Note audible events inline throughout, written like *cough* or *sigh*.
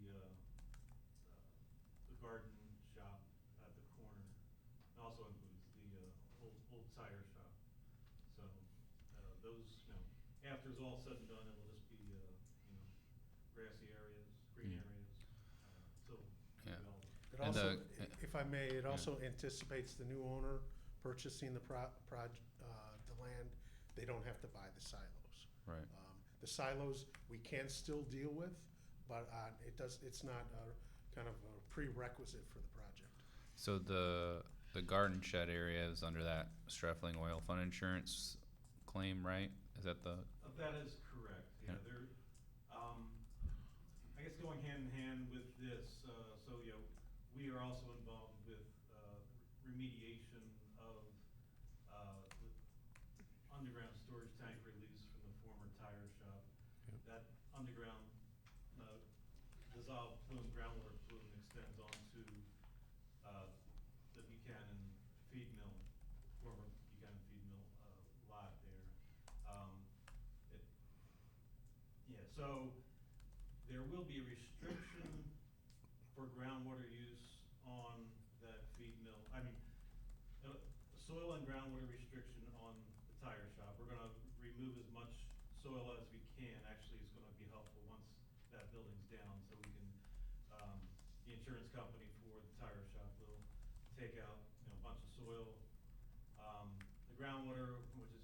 uh, uh, those, you know, after it's all said and done, it'll just be, uh, you know, grassy areas, green Mm. areas, uh, so. Yeah. development. It And, also, uh, if I may, it also anticipates the new owner purchasing the pro, proj, uh, the land. They don't have to buy the silos. Right. Um, The silos, we can still deal with, but, uh, it does, it's not a kind of a prerequisite for the project. So the the garden shed area is under that Streffling Oil Fund insurance claim, right? Is that the Uh, That is correct, yeah, Yeah. there, um, I guess going hand in hand with this, uh, so, you know, we are also involved with, uh, remediation of, uh, the underground storage tank release from the former tire shop. Yep. That underground, uh, dissolved plume, groundwater plume extends onto, uh, the Buchanan feed mill, former Buchanan feed mill, uh, lot there. Um, it, yeah, so there will be a restriction for groundwater use on that feed mill. I mean, uh, soil and groundwater restriction on the tire shop. We're gonna remove as much soil as we can. Actually, it's gonna be helpful once that building's down, so we can, um, the insurance company for the tire shop will take out, you know, a bunch of soil. Um, the groundwater, which is,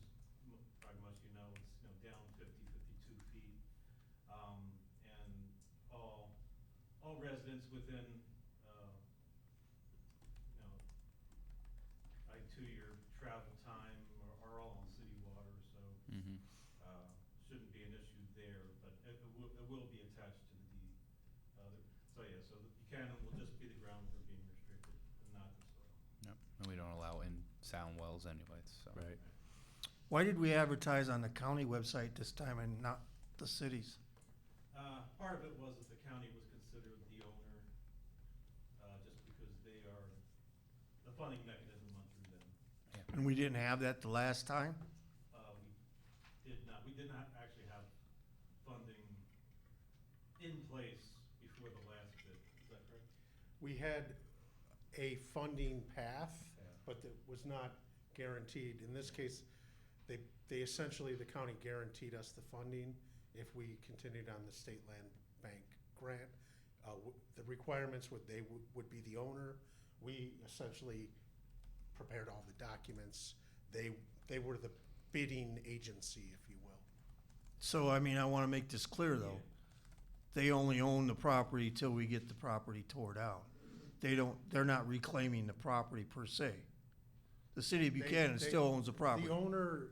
m- probably most of you know, is, you know, down 50, 52 feet. Um, and all, all residents within, uh, you know, like two-year travel time are, are all on city water, so, Mm-hmm. Mhm. uh, shouldn't be an issue there, but it, it will, it will be attached to the deed. Uh, the- so, yeah, so the Buchanan will just be the groundwater being restricted and not the soil. Yep. And we don't allow in sound wells anyways, so Right. Why did we advertise on the county website this time and not the cities? Uh, part of it was that the county was considered the owner, uh, just because they are, the funding mechanism went through them. Yeah. And we didn't have that the last time? Uh, we did not, we did not actually have funding in place before the last bid, is that correct? We had a funding path, Yeah. but that was not guaranteed. In this case, they, they essentially, the county guaranteed us the funding if we continued on the state land bank grant. Uh, w- The requirements would, they would would be the owner. We essentially prepared all the documents. They, they were the bidding agency, if you will. So, I mean, I want to make this clear, though. They only own the property till we get the property tore down. They don't, they're not reclaiming the property per se. The city of They- Buchanan they- still owns the property. The owner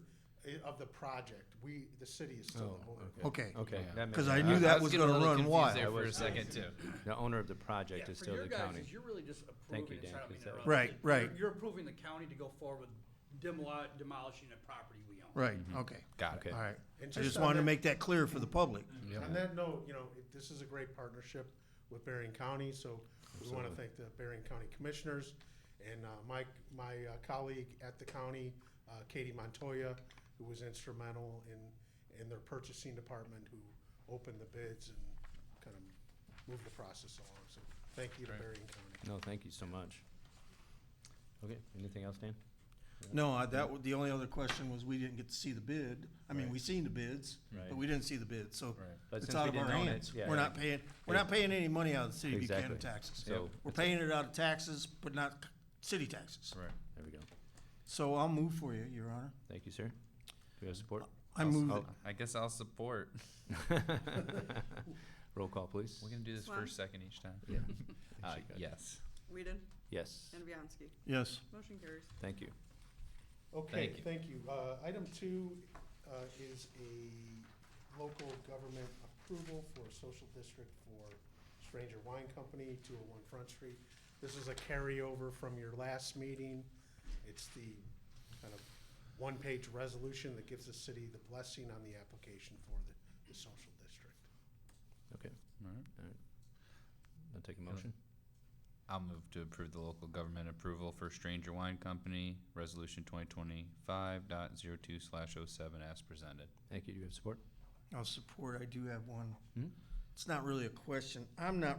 i- of the project, we, the city is still the Oh, owner. Okay. Okay. Yeah. that makes Because I sense. knew that was was getting going to really run confused wild. there for a was- second too. The owner of the project Yeah, is for still your the guys, county. is You're really just Thank you, approving, Dan, it's not 'cause being that- interrupted. Right, You're- right. You're approving the county to go forward with demoli- demolishing a property we own. Right, okay. Got it. Okay. All right. Mm-hmm. I And just just on wanted to that- make that Mm-hmm. clear for the public. On that note, you know, it- this is a great partnership with Berrien County, so we want to thank the Berrien County Commissioners and uh, my, my uh, colleague at the county, uh, Katie Montoya, who was instrumental in, in their purchasing department, who opened the bids and kind of moved the process along. So thank you to Berrien County. No, thank you so much. Okay, anything else, Dan? No, I- that, wa- the only other question was we didn't get to see the bid. I mean, we seen the bids, Right. but we didn't see the bid, so Right. But it's since we out of didn't our own it, hands. yeah. We're not paying, we're not paying any money out of the city of Exactly. Buchanan taxes. So- We're paying it out of taxes, but not c- city taxes. Right. There we go. So I'll move for you, Your Honor. Thank you, sir. Do we *laughs* have support? *laughs* I move that I guess I'll support. Roll call, please. We're gonna do this Swan? first second each time. Yeah. *laughs* Uh, She got it. yes. Whedon Yes, and Bianski. Yes, Motion carries. thank you. Okay, Thank you. thank you. Uh, Item two uh, is a local government approval for a social district for Stranger Wine Company, 201 Front Street. This is a carryover from your last meeting. It's the kind of one-page resolution that gives the city the blessing on the application for the, the social district. Okay, All right. all right. I'll take a motion. I'll move to approve the local government approval for Stranger Wine Company, Resolution 2025.02 slash 07 as presented. Thank you. Do you have support? I'll support. I do have one. Hmm? It's not really a question. I'm not